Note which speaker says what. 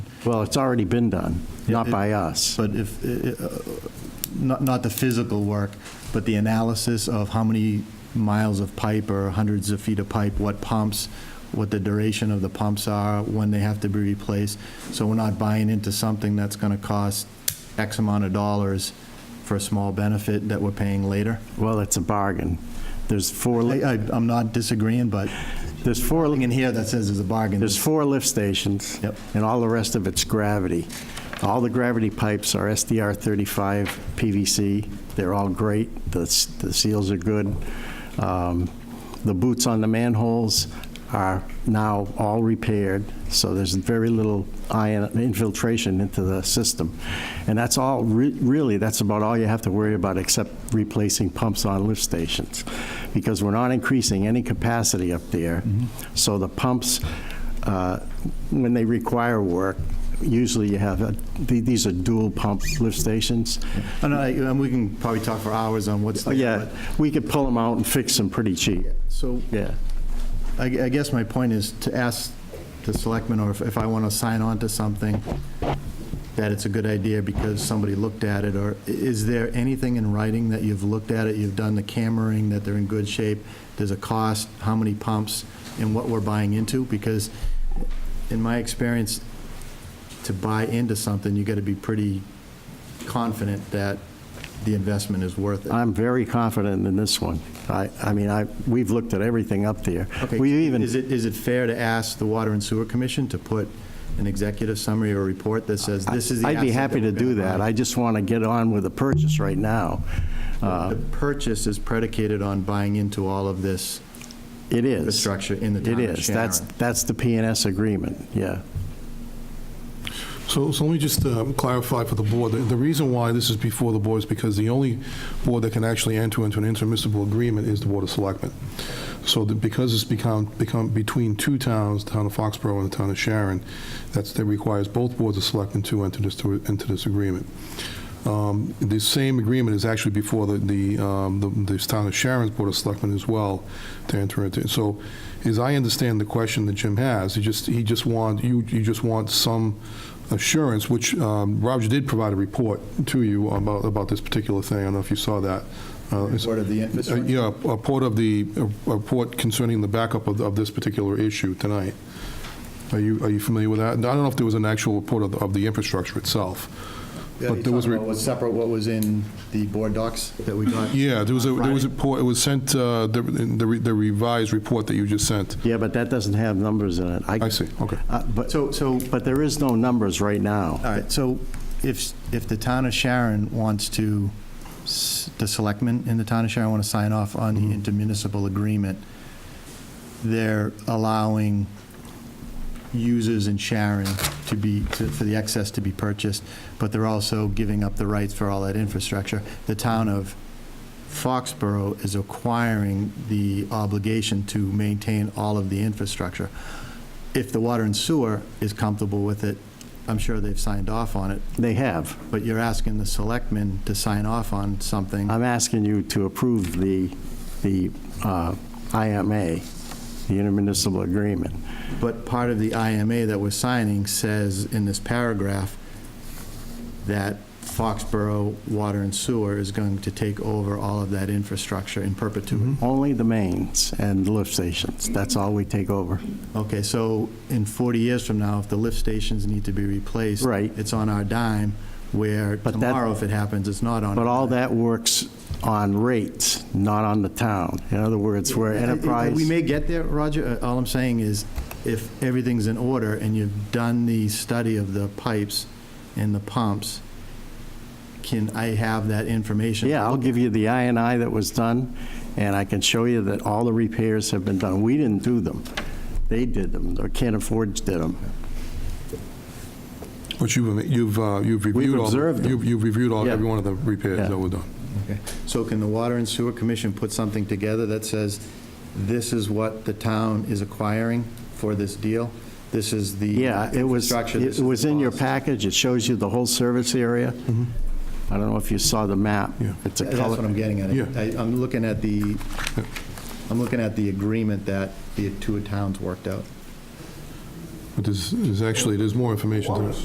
Speaker 1: Well, it's already been done, not by us.
Speaker 2: But if, uh, uh, not, not the physical work, but the analysis of how many miles of pipe or hundreds of feet of pipe, what pumps, what the duration of the pumps are, when they have to be replaced. So we're not buying into something that's going to cost X amount of dollars for a small benefit that we're paying later.
Speaker 1: Well, it's a bargain. There's four,
Speaker 2: I,
Speaker 1: li-
Speaker 2: I- I'm not disagreeing, but
Speaker 1: there's four,
Speaker 2: nothing in here that says it's a bargain.
Speaker 1: there's four lift stations.
Speaker 2: Yep.
Speaker 1: And all the rest of it's gravity. All the gravity pipes are SDR 35 PVC. They're all great. The s- the seals are good. Um, The boots on the manholes are now all repaired, so there's very little ion infiltration into the system. And that's all, re- really, that's about all you have to worry about, except replacing pumps on lift stations, because we're not increasing any capacity up there. So the pumps, uh, when they require work, usually you have, a- th- these are dual pump lift stations.
Speaker 2: And I, and we can probably talk for hours on what's.
Speaker 1: Oh,
Speaker 2: there,
Speaker 1: Yeah,
Speaker 2: but-
Speaker 1: we could pull them out and fix them pretty cheap.
Speaker 2: So
Speaker 1: Yeah.
Speaker 2: I I guess my point is to ask the selectmen, or if- if I want to sign on to something, that it's a good idea because somebody looked at it, or i- is there anything in writing that you've looked at it, you've done the cammering, that they're in good shape, there's a cost, how many pumps, and what we're buying into? Because in my experience, to buy into something, you got to be pretty confident that the investment is worth it.
Speaker 1: I'm very confident in this one. I, I mean, I, we've looked at everything up there.
Speaker 2: Okay,
Speaker 1: We
Speaker 2: Is
Speaker 1: even,
Speaker 2: it, is it fair to ask the Water and Sewer Commission to put an executive summary or report that says this is the
Speaker 1: I'd be
Speaker 2: asset
Speaker 1: happy to
Speaker 2: we're
Speaker 1: do
Speaker 2: gonna
Speaker 1: that.
Speaker 2: buy"?
Speaker 1: I just want to get on with the purchase right now. Uh,
Speaker 2: The purchase is predicated on buying into all of this
Speaker 1: It is.
Speaker 2: infrastructure in the
Speaker 1: It
Speaker 2: town of
Speaker 1: is. That's,
Speaker 2: Sharon.
Speaker 1: that's the PNS agreement, yeah.
Speaker 3: So, so let me just uh, clarify for the board, the the reason why this is before the board is because the only board that can actually enter into an intermunicipal agreement is the Board of Selectmen. So that because it's become, become between two towns, the town of Foxborough and the town of Sharon, that's, that requires both boards of selectmen to enter this, to enter this agreement. Um, The same agreement is actually before the, the, um, the the town of Sharon's Board of Selectmen as well to enter into. So as I understand the question that Jim has, he just, he just want, you, you just want some assurance, which um, Roger did provide a report to you about, about this particular thing. I don't know if you saw that. Uh, it's-
Speaker 2: Report of the infrastructure?
Speaker 3: Uh, Yeah, a report of the, a report concerning the backup of, of this particular issue tonight. Are you, are you familiar with that? And I don't know if there was an actual report of, the- of the infrastructure itself. But there was, a re-
Speaker 2: was separate what was in the board docs that we got?
Speaker 3: yeah, there was, a
Speaker 2: on
Speaker 3: there was a
Speaker 2: Friday?
Speaker 3: report, it was sent, uh, the the re- the revised report that you just sent.
Speaker 1: Yeah, but that doesn't have numbers in it.
Speaker 3: I see, okay.
Speaker 1: Uh, But,
Speaker 2: So, so, all
Speaker 1: but there is no numbers right now.
Speaker 2: right, so if, if the town of Sharon wants to, s- the selectmen in the town of Sharon want to sign off on the intermunicipal agreement, they're allowing users in Sharon to be, to- for the excess to be purchased, but they're also giving up the rights for all that infrastructure. The town of Foxborough is acquiring the obligation to maintain all of the infrastructure. If the water and sewer is comfortable with it, I'm sure they've signed off on it,
Speaker 1: They have.
Speaker 2: but you're asking the selectmen to sign off on something.
Speaker 1: I'm asking you to approve the, the uh, IMA, the intermunicipal agreement.
Speaker 2: But part of the IMA that we're signing says in this paragraph that Foxborough Water and Sewer is going to take over all of that infrastructure in perpetuity.
Speaker 1: Only the mains and lift stations, that's all we take over.
Speaker 2: Okay, so in 40 years from now, if the lift stations need to be replaced.
Speaker 1: Right.
Speaker 2: It's on our dime, where
Speaker 1: But that-
Speaker 2: tomorrow, if it happens, it's not on.
Speaker 1: But
Speaker 2: our
Speaker 1: all
Speaker 2: dime.
Speaker 1: that works on rates, not on the town. In other words, we're enterprise.
Speaker 2: We may get there, Roger. Uh, All I'm saying is, if everything's in order and you've done the study of the pipes and the pumps, can I have that information?
Speaker 1: Yeah, I'll give you the I and I that was done, and I can show you that all the repairs have been done. We didn't do them. They did them, or Can't Afford did them.
Speaker 3: But you've, you've uh, you've reviewed all. the-
Speaker 1: observed them.
Speaker 3: You've you've reviewed all,
Speaker 1: Yeah.
Speaker 3: every one of the
Speaker 1: Yeah.
Speaker 3: repairs that were done.
Speaker 2: Okay. So can the Water and Sewer Commission put something together that says, this is what the town is acquiring for this deal? This is the. uh,
Speaker 1: Yeah, it was,
Speaker 2: infrastructure, this
Speaker 1: it
Speaker 2: is the
Speaker 1: was in your
Speaker 2: cost."
Speaker 1: package, it shows you the whole service area. I don't know if you saw the map.
Speaker 3: Yeah.
Speaker 1: It's a
Speaker 2: Mm-hmm. That's what
Speaker 1: color.
Speaker 2: I'm getting at.
Speaker 3: Yeah.
Speaker 2: I- I'm looking at the, I'm looking at the agreement that the two towns worked out.
Speaker 3: But there's, there's actually, there's more information to this.